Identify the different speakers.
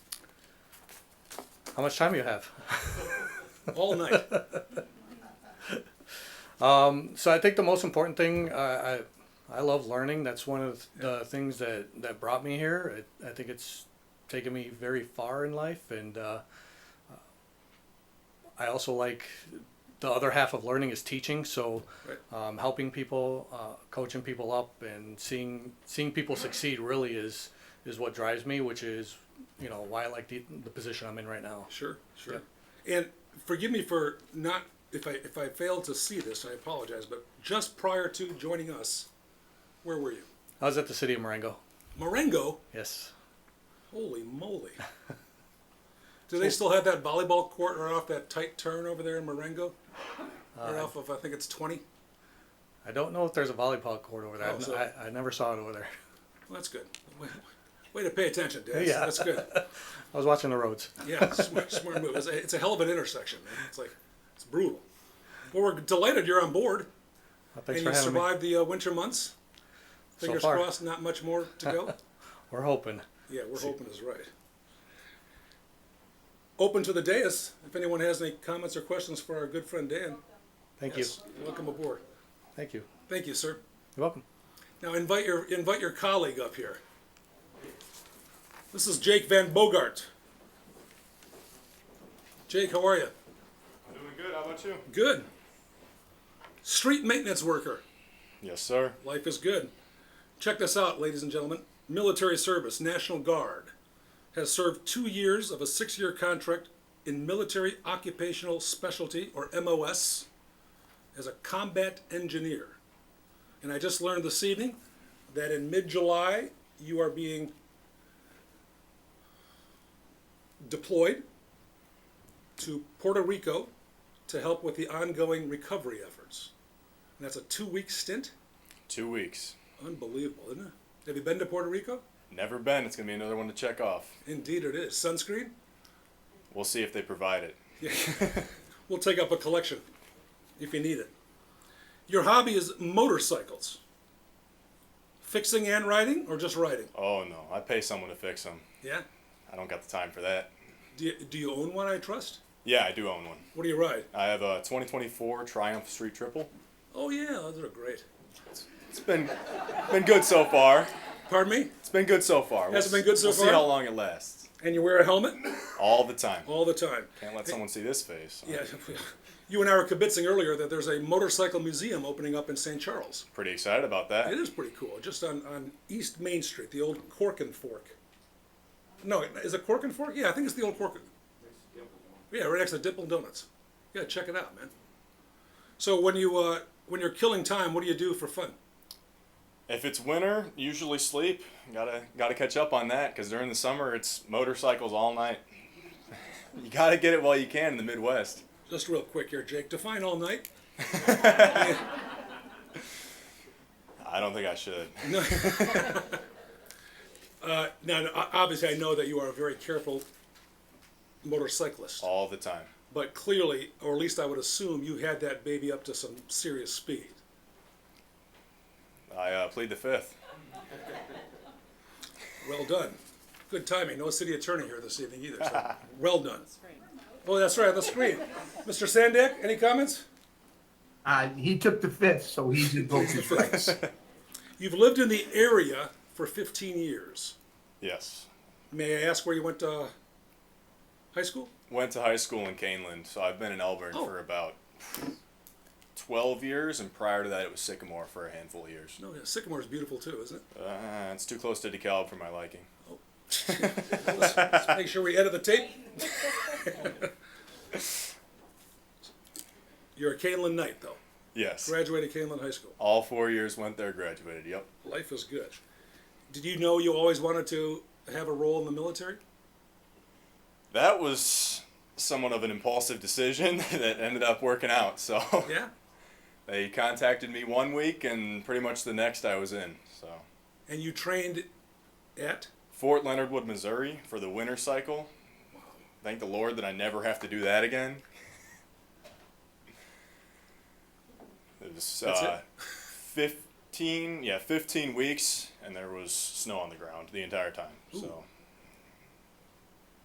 Speaker 1: How much time you have?
Speaker 2: all night.
Speaker 1: Um, so I think the most important thing uh, I I love learning. That's one of the things that that brought me here. I, I think it's taken me very far in life, and uh, I also like the other half of learning is teaching. So
Speaker 2: Right.
Speaker 1: um, helping people, uh, coaching people up, and seeing seeing people succeed really is is what drives me, which is you know why I like the the position I'm in right now.
Speaker 2: Sure, sure. And forgive me for not if I if I failed to see this, I apologize. But just prior to joining us, where were you?
Speaker 1: I was at the city of Marengo.
Speaker 2: Marengo.
Speaker 1: Yes.
Speaker 2: Holy moly! Do they still have that volleyball court right off that tight turn over there in Marengo? Right off of I think it's twenty.
Speaker 1: I don't know if there's a volleyball court over there.
Speaker 2: Oh, so-
Speaker 1: I, I never saw it over there.
Speaker 2: Well, that's good. Way, way to pay attention, Dad.
Speaker 1: Yeah.
Speaker 2: That's good.
Speaker 1: I was watching the roads.
Speaker 2: Yeah, smart, smart move. It's a, it's a hell of an intersection. Man. It's like it's brutal. Well, we're delighted you're on board
Speaker 1: Well, thanks
Speaker 2: and you
Speaker 1: for having me.
Speaker 2: survived the uh, winter months.
Speaker 1: So
Speaker 2: Fingers
Speaker 1: far.
Speaker 2: crossed, not much more to go.
Speaker 1: We're hoping.
Speaker 2: yeah, we're hoping is right. Open to the dais. If anyone has any comments or questions for our good friend Dan,
Speaker 1: Thank
Speaker 2: yes,
Speaker 1: you.
Speaker 2: welcome aboard.
Speaker 1: Thank you.
Speaker 2: Thank you, sir.
Speaker 1: You're welcome.
Speaker 2: Now invite your invite your colleague up here. This is Jake Van Bogart. Jake, how are you?
Speaker 3: Doing good. How about you?
Speaker 2: Good. Street maintenance worker.
Speaker 3: Yes, sir.
Speaker 2: Life is good. Check this out, ladies and gentlemen. Military service, National Guard, has served two years of a six year contract in Military Occupational Specialty, or MOS, as a combat engineer. And I just learned this evening that in mid July, you are being deployed to Puerto Rico to help with the ongoing recovery efforts. And that's a two week stint.
Speaker 3: Two weeks.
Speaker 2: Unbelievable, isn't it? Have you been to Puerto Rico?
Speaker 3: Never been. It's gonna be another one to check off.
Speaker 2: Indeed, it is. Sunscreen?
Speaker 3: We'll see if they provide it.
Speaker 2: We'll take up a collection if you need it. Your hobby is motorcycles. Fixing and riding, or just riding?
Speaker 3: Oh no, I pay someone to fix them.
Speaker 2: Yeah.
Speaker 3: I don't got the time for that.
Speaker 2: Do you, do you own one, I trust?
Speaker 3: Yeah, I do own one.
Speaker 2: What do you ride?
Speaker 3: I have a 2024 Triumph Street Triple.
Speaker 2: Oh, yeah, those are great.
Speaker 3: It's been been good so far.
Speaker 2: Pardon me?
Speaker 3: It's been good so far.
Speaker 2: Has it been good so
Speaker 3: we'll
Speaker 2: far?
Speaker 3: See how long it lasts.
Speaker 2: And you wear a helmet?
Speaker 3: All the time.
Speaker 2: All the time.
Speaker 3: Can't let someone see this face.
Speaker 2: Yeah. You and I were kibitzing earlier that there's a motorcycle museum opening up in St. Charles.
Speaker 3: Pretty excited about that.
Speaker 2: It is pretty cool, just on, on East Main Street, the old Cork and Fork. No, is it Cork and Fork? Yeah, I think it's the old Cork. and- Yeah, right next to Dipple Donuts. Yeah, check it out, man. So when you uh, when you're killing time, what do you do for fun?
Speaker 3: If it's winter, usually sleep. Gotta gotta catch up on that because during the summer it's motorcycles all night. you gotta get it while you can in the Midwest.
Speaker 2: Just real quick here, Jake. Define all night.
Speaker 3: I don't think I should.
Speaker 2: Uh, Now, o- obviously, I know that you are a very careful motorcyclist,
Speaker 3: All the time.
Speaker 2: but clearly, or at least I would assume, you had that baby up to some serious speed.
Speaker 3: I uh, plead the fifth.
Speaker 2: Well done. Good timing. No city attorney here this evening either. So well done. Oh, that's right, the screen. Mr. Sandak, any comments?
Speaker 4: Uh, he took the fifth, so he's invoked his rights.
Speaker 2: You've lived in the area for 15 years.
Speaker 3: Yes.
Speaker 2: May I ask where you went to high school?
Speaker 3: Went to high school in Caneland, so I've been in Elburn
Speaker 2: Oh.
Speaker 3: for about 12 years, and prior to that it was Sycamore for a handful of years.
Speaker 2: No, yeah, Sycamore is beautiful too, isn't it?
Speaker 3: Uh, it's too close to DeKalb for my liking.
Speaker 2: Let's, let's make sure we edit the tape. You're a Canelan Knight, though.
Speaker 3: Yes.
Speaker 2: Graduated Canelan High School.
Speaker 3: All four years went there, graduated. Yep.
Speaker 2: Life is good. Did you know you always wanted to have a role in the military?
Speaker 3: That was somewhat of an impulsive decision that ended up working out. So
Speaker 2: Yeah.
Speaker 3: they contacted me one week, and pretty much the next I was in. So
Speaker 2: And you trained at?
Speaker 3: Fort Leonard Wood, Missouri, for the winter cycle. Thank the Lord that I never have to do that again. It was
Speaker 2: That's
Speaker 3: uh, fifteen, yeah, fifteen weeks, and there was snow on the ground the entire time. So